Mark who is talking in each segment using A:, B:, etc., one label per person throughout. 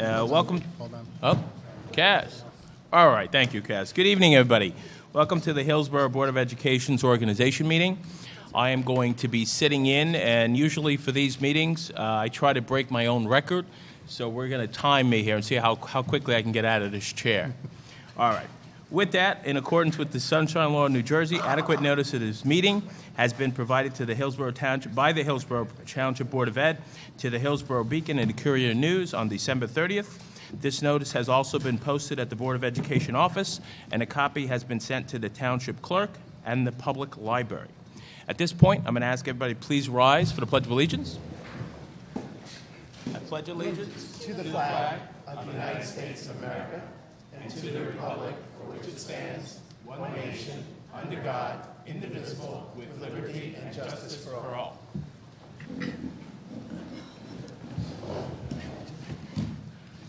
A: Uh, welcome.
B: Hold on.
A: Oh, Cass. All right, thank you, Cass. Good evening, everybody. Welcome to the Hillsborough Board of Education's organization meeting. I am going to be sitting in, and usually for these meetings, uh, I try to break my own record. So we're going to time me here and see how, how quickly I can get out of this chair. All right. With that, in accordance with the Sunshine Law of New Jersey, adequate notice of this meeting has been provided to the Hillsborough Township, by the Hillsborough Township Board of Ed, to the Hillsborough Beacon and the Courier News on December 30th. This notice has also been posted at the Board of Education office, and a copy has been sent to the Township Clerk and the Public Library. At this point, I'm going to ask everybody, please rise for the Pledge of Allegiance. I pledge allegiance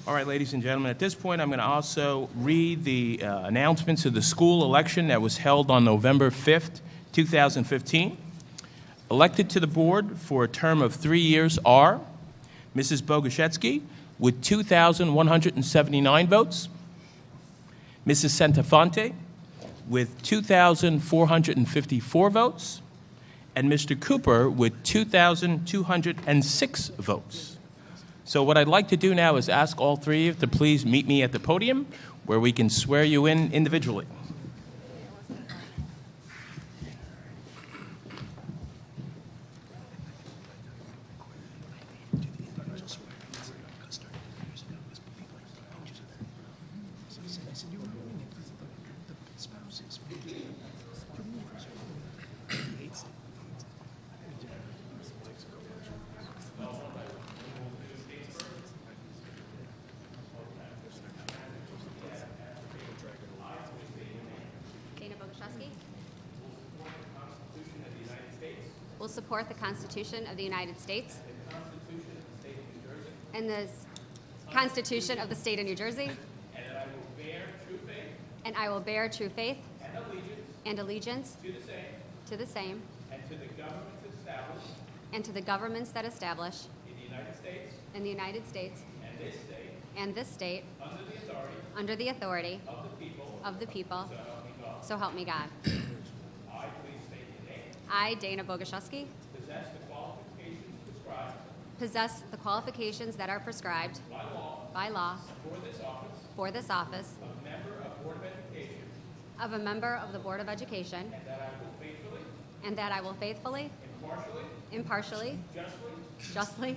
A: All right, ladies and gentlemen, at this point, I'm going to also read the uh, announcements of the school election that was held on November 5th, 2015. Elected to the board for a term of three years are Mrs. Bogoshevsky with 2,179 votes, Mrs. Santafonte with 2,454 votes, and Mr. Cooper with 2,206 votes. So what I'd like to do now is ask all three of you to please meet me at the podium where we can swear you in individually.
C: Dana Boguszewski. Will support the Constitution of the United States. And the Constitution of the State of New Jersey. And I will bear true faith. And allegiance. To the same. And to the governments established. And to the governments that establish. In the United States. And this state. And this state. Under the authority. Of the people. So help me God. I, Dana Boguszewski. Possess the qualifications that are prescribed. By law. For this office. Of a member of the Board of Education. And that I will faithfully. Impartially. Justly.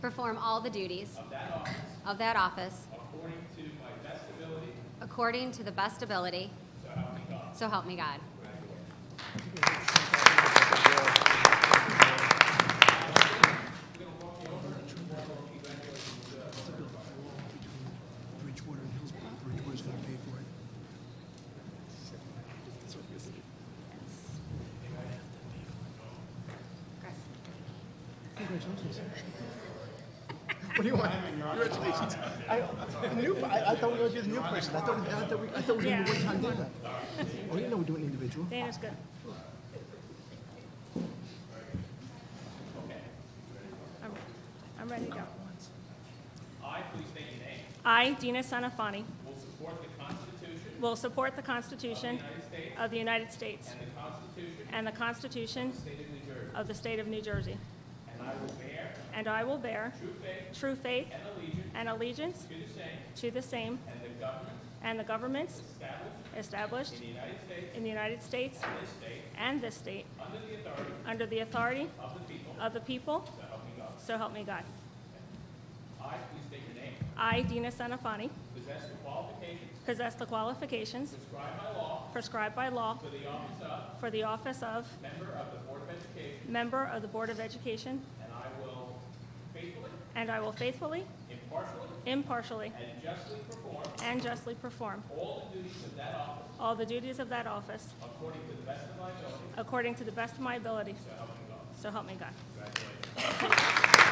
C: Perform all the duties. Of that office. According to the best ability. So help me God.
B: Bridgewater and Hillsborough. Bridgewater's gonna pay for it. Congratulations. What do you want? Congratulations. I, new, I, I thought we were gonna do the new person. I thought, I thought we, I thought we were doing the one-time deal. Oh, you know we're doing individual.
D: Dana's good. I'm- I'm ready to go.
A: I, please state your name,
D: I, Dina Sanafani,
A: will support the Constitution
D: will support the Constitution of the United States
A: and the Constitution
D: and the Constitution
A: of the State of New Jersey,
D: of the State of
A: and
D: New Jersey,
A: I will bear
D: and I will bear
A: true faith
D: true faith
A: and allegiance
D: and allegiance
A: to the same
D: to the same
A: and the governments
D: and the governments
A: established
D: established
A: in the United States
D: in the United States
A: and this state
D: and this state
A: under the authority
D: under the authority
A: of the people,
D: of the people,
A: so help me God.
D: so help me God.
A: I, please state your name,
D: I, Dina Sanafani,
A: possess the qualifications
D: possess the qualifications
A: prescribed by law
D: prescribed by law
A: for the office of
D: for the office of
A: member of the Board of Education,
D: Member of the Board of Education,
A: and I will faithfully,
D: and I will faithfully,
A: impartially,
D: impartially,
A: and justly perform
D: and justly perform
A: all the duties of that office
D: all the duties of that office
A: according to the best of my ability,
D: according to the best of my ability.
A: so help me God.
D: So help me God.
A: Congratulations.